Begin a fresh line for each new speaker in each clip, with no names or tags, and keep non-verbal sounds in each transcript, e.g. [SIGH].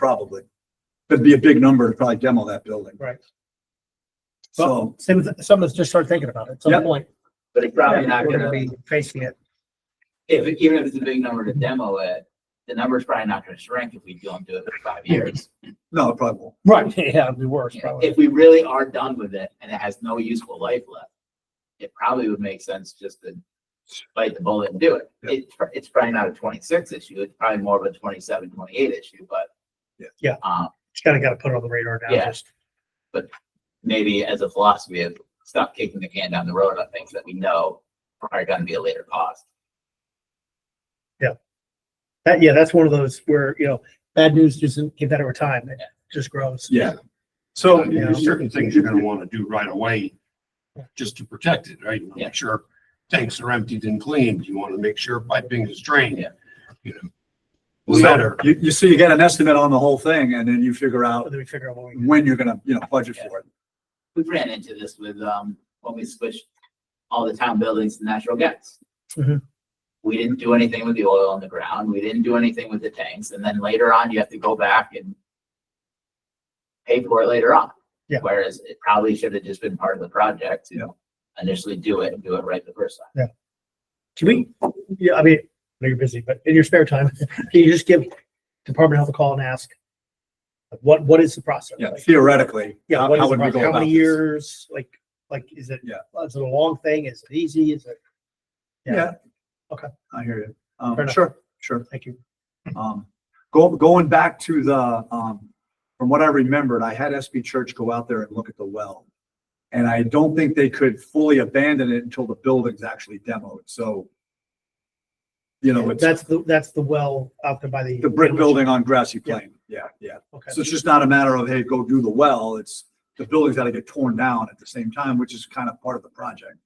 probably. It'd be a big number to probably demo that building.
Right.
So,
Same with, some of us just start thinking about it at some
Yep.
point.
But it's probably not
We're
gonna be,
be facing it.
if, even if it's a big number to demo it, the number's probably not gonna shrink if we don't do it for five years.
no, it probably won't.
Right, [LAUGHS] yeah, it'd be worse probably.
If we really are done with it and it has no useful life left, it probably would make sense just to bite the bullet and do it.
Yeah.
It, it's probably not a twenty-six issue, it's probably more of a 27, 28 issue, but.
Yeah.
Yeah.
Um,
Just kinda gotta put it on the radar now,
Yeah.
just.
maybe as a philosophy of stop kicking the can down the road on things that we know are gonna be a later cost.
That, yeah, that's one of those where, you know, bad news doesn't get better with time. It just grows.
Yeah.
So
Yeah.
there's certain things you're gonna wanna do right away, just to protect it, right? You wanna
Yeah.
Make sure tanks are emptied and cleaned. You wanna make sure piping is drained,
Yeah.
you know.
So,
Letter,
You, you, so you get an estimate on the whole thing and then you figure out
Then we figure out what we.
when you're gonna, you know, budget for it.
we ran into this with, um, when we switched all the town buildings to natural gas.
Mhm.
We didn't do anything with the oil on the ground. We didn't do anything with the tanks. And then later on, you have to go back and pay for it later on.
Yeah.
Whereas it probably should have just been part of the project
Yeah.
to initially do it and do it right the first time.
Can we, yeah, I mean, I know you're busy, but in your spare time, [LAUGHS] can you just give Department of Health a call and ask? like, What, what is the process?
Yeah,
Like,
theoretically.
Yeah,
how-
what is
how
the
would we go
process? How
about
many
this?
years? Like, like, is it,
Yeah.
is it a long thing? Is it easy? Is it?
Yeah.
Okay.
I hear you.
Fair
Um,
enough.
sure, sure.
Thank you.
Um, go, going back to the, um, from what I remembered, I had SB Church go out there and look at the well. And I don't think they could fully abandon it until the building's actually demoed, so. You know, it's
That's the, that's the well out there by the.
the brick building on Grassy Plain. Yeah, yeah.
Okay.
So it's just not a matter of, hey, go do the well, it's, the building's gotta get torn down at the same time, which is kind of part of the project.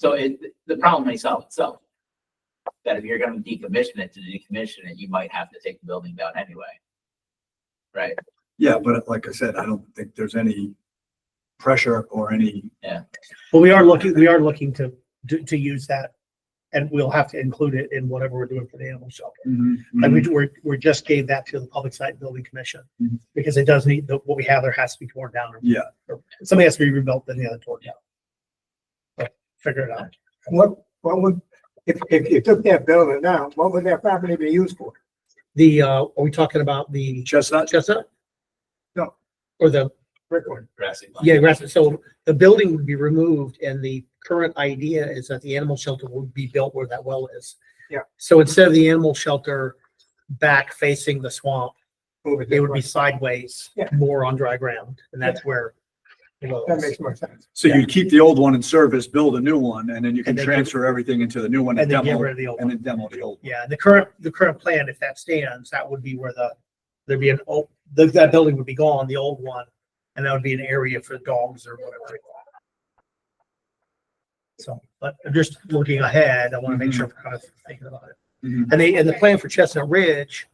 So it, the problem may solve itself. That if you're gonna decommission it, to decommission it, you might have to take the building down anyway. Right?
Yeah, but like I said, I don't think there's any pressure or any,
But we are looking, we are looking to, to, to use that. And we'll have to include it in whatever we're doing for the animal shelter. Like Mm-hmm. we,
Mm-hmm.
we're, we just gave that to the Public Site Building Commission
Mhm.
because it does need, the- what we have there has to be torn down.
yeah.
or
Mm-hmm.
Something has to be rebuilt, then the other torn down. But Figure it out.
What, what would, if, if you took that building down, what would that property be used for?
The, uh, are we talking about the
Chestnut,
chestnut?
No.
Or the,
Brick one.
grassy lawn.
yeah, grass- so the building would be removed and the current idea is that the animal shelter would be built where that well is.
Yeah.
So instead of the animal shelter back facing the swamp,
Move it
it
this
would
way.
be sideways,
Yeah.
more on dry ground, and that's where. the well
That
is.
makes more sense.
So you'd keep the old one in service, build a new one, and then you can
And then-
transfer everything into the new one and
And then get
demo,
rid of the old
and
one.
then demo the old.
Yeah, the current, the current plan, if that stands, that would be where the, there'd be an, old the- that building would be gone, the old one. And that would be an area for dogs or whatever. So, but I'm just looking ahead, I want to make sure we're kind of thinking about it.
Mhm.
And they, and the plan for Chestnut Ridge,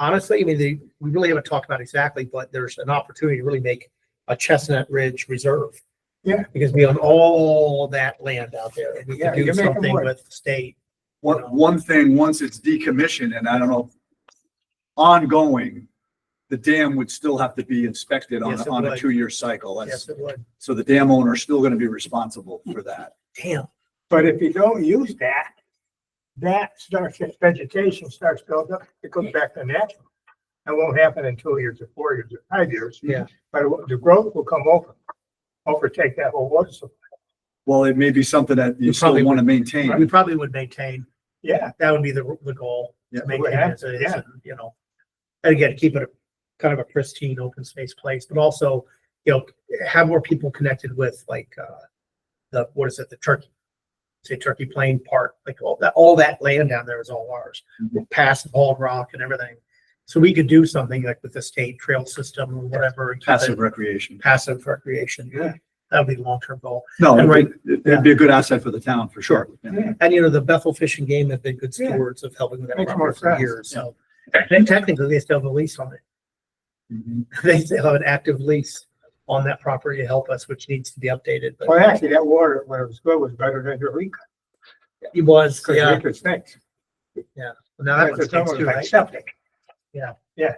honestly, I mean, they, we really haven't talked about exactly, but there's an opportunity to really make a Chestnut Ridge Reserve.
Yeah.
Because we own all that land out there. We
Yeah,
could do
you're making
something
work.
with the state.
One, one thing, once it's decommissioned, and I don't know, ongoing, the dam would still have to be inspected on,
Yes,
a-
it
on a
would.
two-year cycle. That's-
Yes, it would.
So the dam owner is still gonna be responsible for that.
Damn.
But if you don't use that, that starts, its vegetation starts building up, it goes back to natural. That won't happen in two years or four years or five years.
Yeah.
But it will- the growth will come over, overtake that whole water supply.
Well, it may be something that you
You
still
probably
wanna
We
maintain.
probably would maintain,
Yeah,
that would be the, the goal. to
Yeah.
Maintain it as it is, and, you know, and again, keep it a kind of a pristine, open space place, but also, you know, have more people connected with like, uh, the, what is it, the turkey? Say Turkey Plain Park, like all that, all that land down there is all ours, past Bald Rock and everything. So we could do something like with the state trail system or whatever. and keep it
Passive recreation.
Passive recreation.
Yeah.
That would be the long-term goal.
No,
And right-
it'd be- it'd be a good asset for the town, for sure.
Yeah.
And you know, the Bethel Fish and Game have been good
Yeah.
stewards of helping with that
Makes more
property for years,
sense,
so. And technically, they still have a lease on it. [LAUGHS]
Mhm.
They still have an active lease on that property to help us, which needs to be updated,
well,
but
actually, that water, when it was good, was better than your leak.
it was,
Because
yeah.
leak is things.
Now that one
Because it's
stinks
almost
too,
like
right?
septic.
Yeah.
Yeah,